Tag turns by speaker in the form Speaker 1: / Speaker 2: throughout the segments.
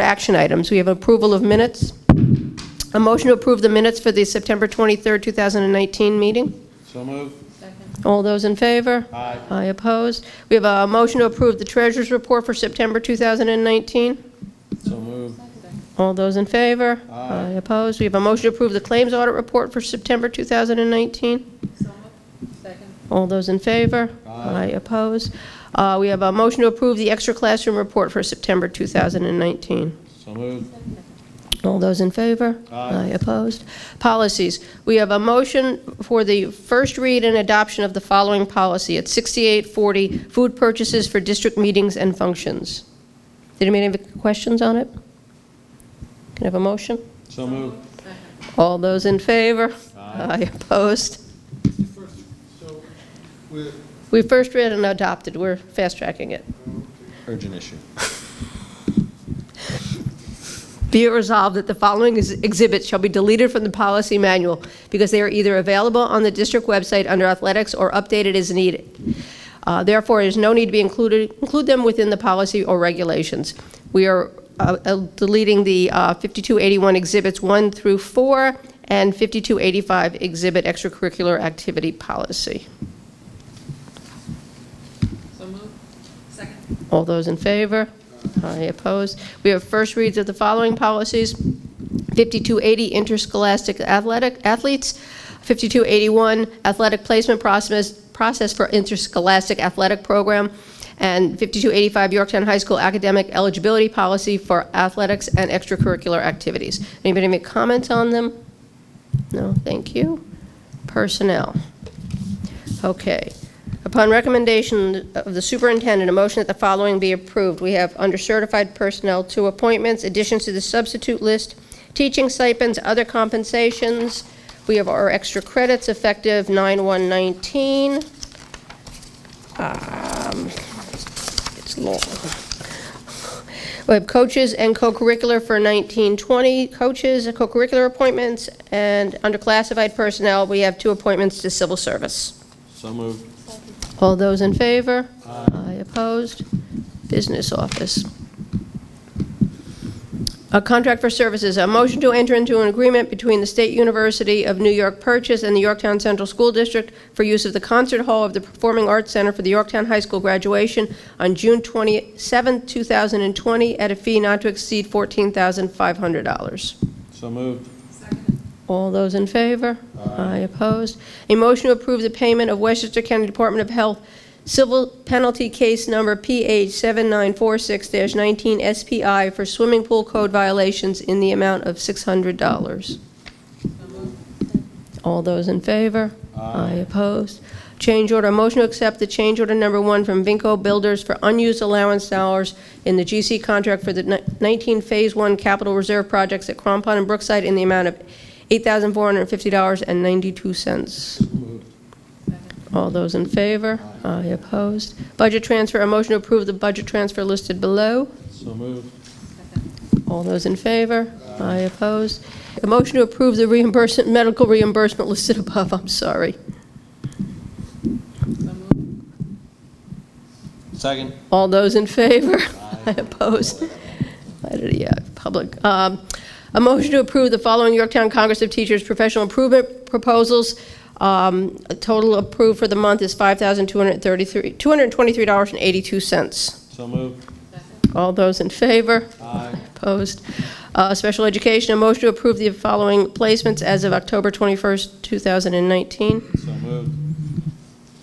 Speaker 1: action items. We have approval of minutes. A motion to approve the minutes for the September 23rd, 2019 meeting.
Speaker 2: So moved.
Speaker 1: All those in favor?
Speaker 2: Aye.
Speaker 1: I oppose. We have a motion to approve the treasurer's report for September 2019.
Speaker 2: So moved.
Speaker 1: All those in favor?
Speaker 2: Aye.
Speaker 1: Opposed? We have a motion to approve the claims audit report for September 2019.
Speaker 3: Second.
Speaker 1: All those in favor?
Speaker 2: Aye.
Speaker 1: Opposed? Uh, We have a motion to approve the extra classroom report for September 2019.
Speaker 2: So moved.
Speaker 1: All those in favor?
Speaker 2: Aye.
Speaker 1: Opposed? Policies. We have a motion for the first read and adoption of the following policy at 6840, food purchases for district meetings and functions. Did anybody have questions on it? Can I have a motion?
Speaker 2: So moved.
Speaker 1: All those in favor?
Speaker 2: Aye.
Speaker 1: Opposed?
Speaker 4: First, so with,
Speaker 1: We first read and adopted, we're fast-tracking it.
Speaker 2: Urgent issue.
Speaker 1: Be it resolved that the following ex- exhibits shall be deleted from the policy manual because they are either available on the district website under athletics or updated as needed. Uh, Therefore, there's no need to be included, include them within the policy or regulations. We are uh, uh, deleting the uh, 5281 exhibits 1 through 4 and 5285 exhibit extracurricular activity policy.
Speaker 3: So moved. Second.
Speaker 1: All those in favor? Aye, opposed? We have first reads of the following policies. 5280, interscholastic athletic, athletes. 5281, athletic placement process, process for interscholastic athletic program. And 5285, Yorktown High School academic eligibility policy for athletics and extracurricular activities. Anybody make comments on them? No, thank you. Personnel. Okay. Upon recommendation of the superintendent, a motion that the following be approved. We have under certified personnel, two appointments, additions to the substitute list, teaching stipends, other compensations. We have our extra credits effective 9/119. Um, It's long. We have coaches and co-curricular for 1920, coaches, co-curricular appointments, and under classified personnel, we have two appointments to civil service.
Speaker 2: So moved.
Speaker 1: All those in favor? Aye. Opposed? Business office. A contract for services, a motion to enter into an agreement between the State University of New York Purchase and the Yorktown Central School District for use of the concert hall of the Performing Arts Center for the Yorktown High School graduation on June 27, 2020, at a fee not to exceed $14,500.
Speaker 2: So moved.
Speaker 3: Second.
Speaker 1: All those in favor? Aye. Opposed? A motion to approve the payment of Westchester County Department of Health civil penalty case number PH 7946-19 SPI for swimming pool code violations in the amount of $600. All those in favor? Aye. Opposed? Change order, motion to accept the change order number one from Vinco Builders for unused allowance dollars in the GC contract for the ni- 19 Phase 1 Capital Reserve projects at Crampon and Brookside in the amount of $8,450.92.
Speaker 2: Moved.
Speaker 1: All those in favor? Aye. Opposed? Budget transfer, a motion to approve the budget transfer listed below.
Speaker 2: So moved.
Speaker 1: All those in favor? Aye. Opposed? A motion to approve the reimbursement, medical reimbursement listed above, I'm sorry.
Speaker 3: So moved.
Speaker 2: Second.
Speaker 1: All those in favor? I oppose. Yeah, public. Um, A motion to approve the following Yorktown Congress of Teachers professional improvement proposals. Um, a Total approved for the month is $5,233 $223.82.
Speaker 2: So moved.
Speaker 1: All those in favor?
Speaker 2: Aye.
Speaker 1: Opposed. Uh, Special education, a motion to approve the following placements as of October 21st, 2019.
Speaker 2: So moved.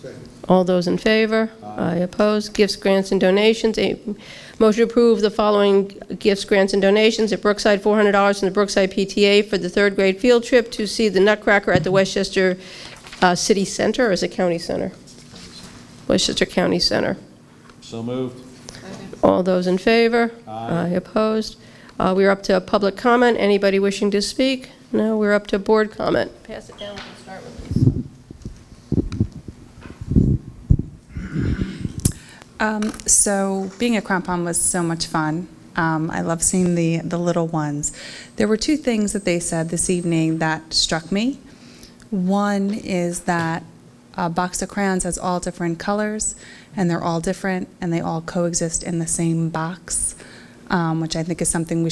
Speaker 4: second,
Speaker 1: All those in favor? Aye. Opposed? Gifts, grants, and donations. A Motion to approve the following gifts, grants, and donations. At Brookside, $400 from the Brookside PTA for the third grade field trip to see the Nutcracker at the Westchester uh, City Center, or is it County Center? Westchester County Center.
Speaker 2: So moved.
Speaker 3: Second.
Speaker 1: All those in favor?
Speaker 2: Aye.
Speaker 1: Opposed? Uh, We're up to public comment. Anybody wishing to speak? No, we're up to board comment. Pass it down, we'll start with Lisa.
Speaker 5: Um, so being at Crampon was so much fun. Um, I love seeing the, the little ones. There were two things that they said this evening that struck me. One is that a box of crayons has all different colors, and they're all different, and they all coexist in the same box. Um, um, which I think is something we should